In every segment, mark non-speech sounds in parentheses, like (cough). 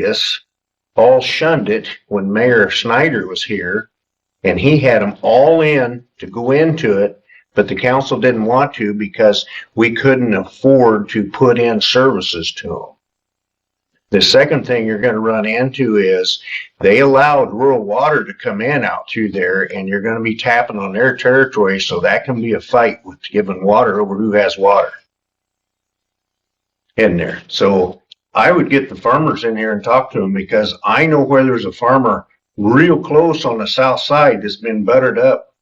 previous all shunned it when Mayor Snyder was here. And he had them all in to go into it, but the council didn't want to because we couldn't afford to put in services to them. The second thing you're gonna run into is they allowed rural water to come in out through there and you're gonna be tapping on their territory, so that can be a fight with giving water over who has water in there. So I would get the farmers in here and talk to them because I know where there's a farmer real close on the south side that's been buttered up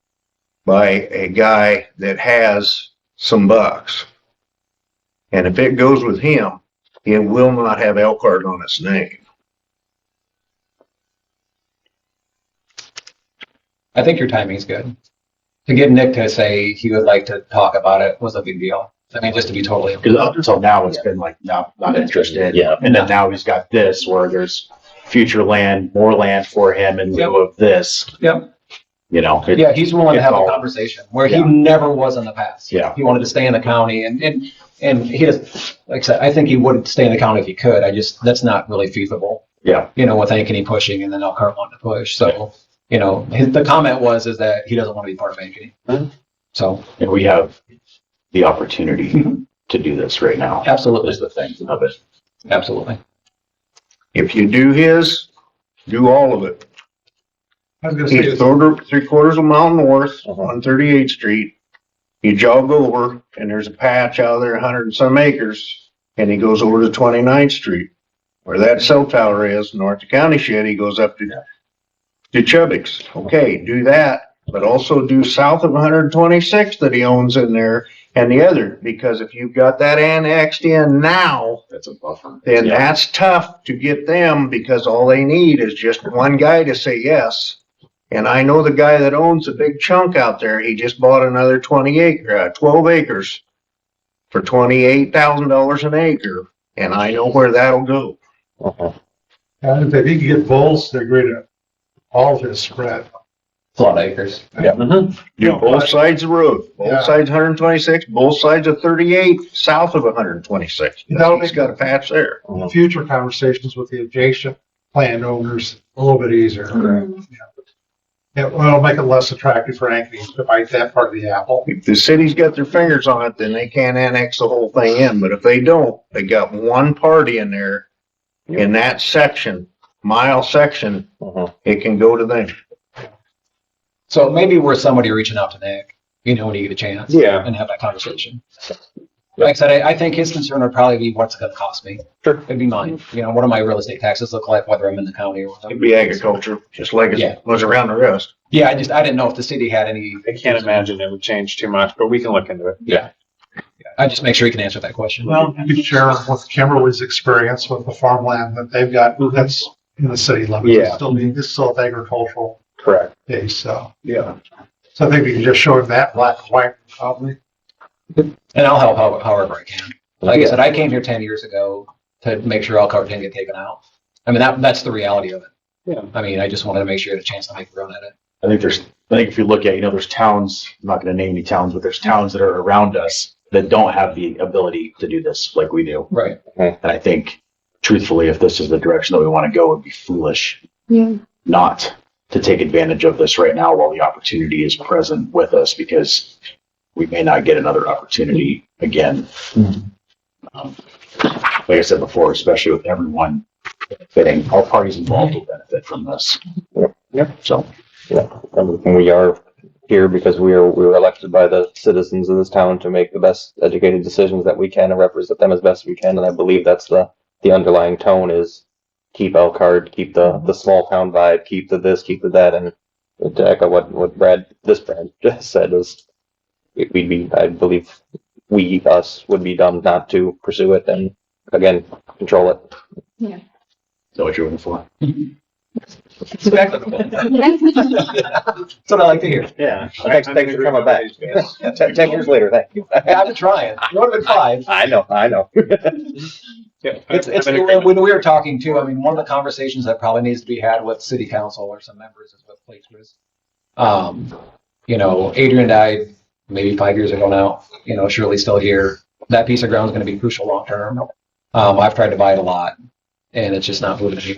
by a guy that has some bucks. And if it goes with him, it will not have Elkhart on its name. I think your timing's good. To get Nick to say he would like to talk about it was a big deal. I mean, just to be totally. Because up until now, it's been like, no, not interested. Yeah. And then now he's got this where there's future land, more land for him in lieu of this. Yep. You know, it- Yeah, he's willing to have a It's all- conversation where he Yeah. never was in the past. Yeah. He wanted to stay in the county and, and, and he does, like I said, I think he would stay in the county if he could. I just, that's not really feasible. Yeah. You know, with Ankeny pushing and then Elkhart wanting to push. So, you know, his, the comment was, is that he doesn't want to be part of Mhm. Ankeny. So and we have the opportunity Mhm. to do this right now. absolutely, Is the thing of it. absolutely. If you do his, do all of it. I was gonna He's quarter, three quarters of a mile north on thirty-eighth street. You jog over and there's a patch out there, a hundred and some acres, and he goes over to 29th street. Where that cell tower is, north of County Shed, he goes up to, to Chubbick's. Okay, do that, but also do south of one hundred and twenty-sixth that he owns in there and the other, because if you've got that annexed in now, That's a buffer. then Yeah. that's tough to get them because all they need is just one guy to say yes. And I know the guy that owns a big chunk out there, he just bought another twenty acre, uh, twelve acres for twenty-eight thousand dollars an acre, and I know where that'll go. And if he could get bulls, they're great at all this spread. A lot of acres. Mm-hmm. Do both sides of the road, Yeah. both sides hundred and twenty-six, both sides of thirty-eight, south of hundred and twenty-six. That'll He's got a patch there. Future conversations with the adjacent land owners a little bit easier. Mm-hmm. Yeah, well, it'll make it less attractive for Ankeny to bite that part of the apple. If the city's got their fingers on it, then they can't annex the whole thing in, but if they don't, they got one party in there, in that section, mile section, it can go to them. So maybe we're somebody reaching out to Nick, you know, when you get a chance. Yeah. And have that conversation. Like I said, I, I think his concern would probably be what's it gonna cost me. Sure. It'd be mine. You know, what do my real estate taxes look like, whether I'm in the county or It'd whatever. be agriculture, just like Yeah. it was around the rest. Yeah, I just, I didn't know if the city had any. I can't imagine it would change too much, but we can look into it. Yeah. I just make sure he can answer that question. Well, you could share with Kimberly's experience with the farmland that they've got that's in the city limits. It's Yeah. Still, it's still agricultural Correct. base, so. Yeah. So I think we can just show him that black and white, probably. And I'll help how- however I can. Like I said, I came here ten years ago to make sure Elkhart didn't get taken out. I mean, that, that's the reality of it. Yeah. I mean, I just wanted to make sure you had a chance to make a run at it. I think there's, I think if you look at, you know, there's towns, I'm not gonna name any towns, but there's towns that are around us that don't have the ability to do this like we do. Right. And I think truthfully, if this is the direction that we want to go, it'd be foolish Yeah. not to take advantage of this right now while the opportunity is present with us because we may not get another opportunity again. Um, Like I said before, especially with everyone benefiting, all parties involved will benefit from this. Yep. So, And we are here because we are, we were elected by the citizens of this town to make the best educated decisions that we can and represent them as best we can. And I believe that's the, the underlying tone is keep Elkhart, keep the, the small town vibe, keep the this, keep the that. And to echo what, what Brad, this Brad (laughs) just said is we- we'd be, I believe we, us would be dumb not to pursue it and again, control it. is that what you're looking for? Exactly. That's what I like to hear. Yeah. Thanks, thanks for (laughs) coming back. Ten, ten years later, thank you. Yeah, I've been trying. You would have been five. I know, I know. It's, it's, when we were talking too, I mean, one of the conversations that probably needs to be had with city council or some members is with Lake Cruz. Um, you know, Adrian died maybe five years ago now, you know, Shirley's still here. That piece of ground is going to be crucial long term. Um, I've tried to buy it a lot and it's just not moving any